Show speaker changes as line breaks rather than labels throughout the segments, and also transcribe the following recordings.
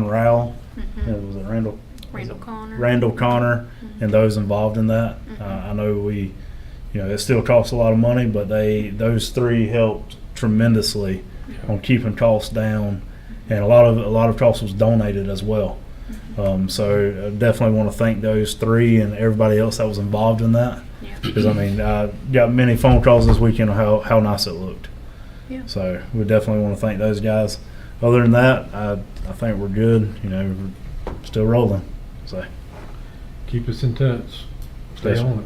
Ryan Rowell,
Mhm.
uh, was it Randall?
Randall Connor.
Randall Connor
Mhm.
and those involved in that. Uh,
Mhm.
I know we, you know, it still costs a lot of money, but they, those three helped tremendously on keeping costs down. And a lot of, a lot of costs was donated as well.
Mm-hmm.
Um, so I definitely want to thank those three and everybody else that was involved in that.
Yeah.
Because I mean, I got many phone calls this weekend on how, how nice it looked.
Yeah.
So we definitely want to thank those guys. Other than that, I, I think we're good. You know, we're still rolling. So
Keep us in touch. Stay
Yes, sir.
on it.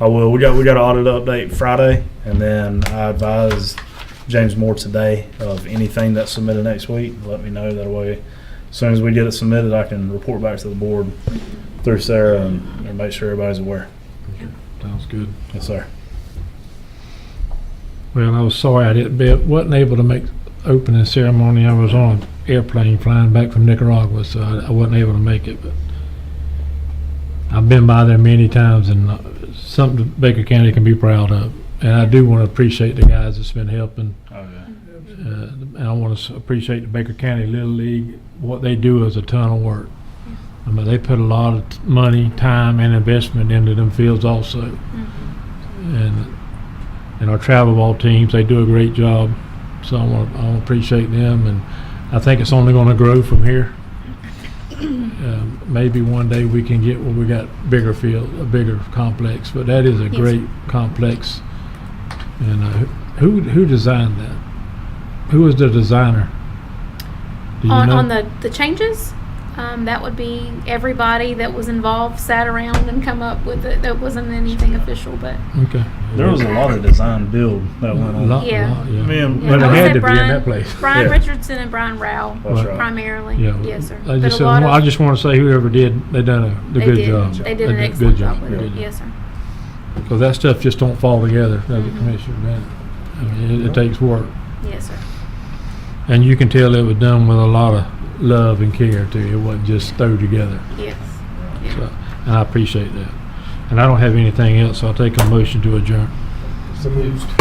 I will. We got we got an audit update Friday, and then I advise James Moore today of anything that's submitted next week. Let me know that way. As soon as we get it submitted, I can report back to the board through Sarah and, and make sure everybody's aware.
Sounds good.
Yes, sir.
Well, I was sorry I didn't be, wasn't able to make opening ceremony. I was on an airplane flying back from Nicaragua, so I, I wasn't able to make it, but I've been by there many times and uh, something Baker County can be proud of. And I do want to appreciate the guys that's been helping.
Oh yeah.
Uh,
Mm-hmm.
and I want to appreciate the Baker County Little League. What they do is a ton of work. I mean, they put a lot of t- money, time, and investment into them fields also.
Mhm.
And, and our travel ball teams, they do a great job. So I want, I want to appreciate them and I think it's only going to grow from here. Um, Maybe one day we can get where we got bigger field, a bigger complex, but that is a
Yes.
great complex. And uh, who, who designed that? Who was the designer? Do you
On,
know?
on the, the changes, um, that would be everybody that was involved sat around and come up with it. That wasn't anything official, but
Okay.
There was a lot of design build that went on.
Lot-
Yeah.
lot, yeah.
Me and-
Well,
I
it
would
had
say
to be in
Brian-
that place.
Brian
Yeah. uh,
Richardson and Brian Rowell
That's right.
primarily.
Yeah.
Yes, sir.
I
But
just,
a
said,
lot
I
of-
just want to say whoever did, they done a,
they
they good
did-
job.
They did an
good
excellent job
job,
with it.
good
Yes, sir.
job. Cause that stuff just don't fall together, does it,
Mhm.
Commissioner Bennett? I mean, it, it takes work.
Yes, sir.
And you can tell it was done with a lot of love and care too. It wasn't just thrown together.
Yes.
So, and I appreciate that. And I don't have anything else. I'll take a motion to adjourn.
So moved.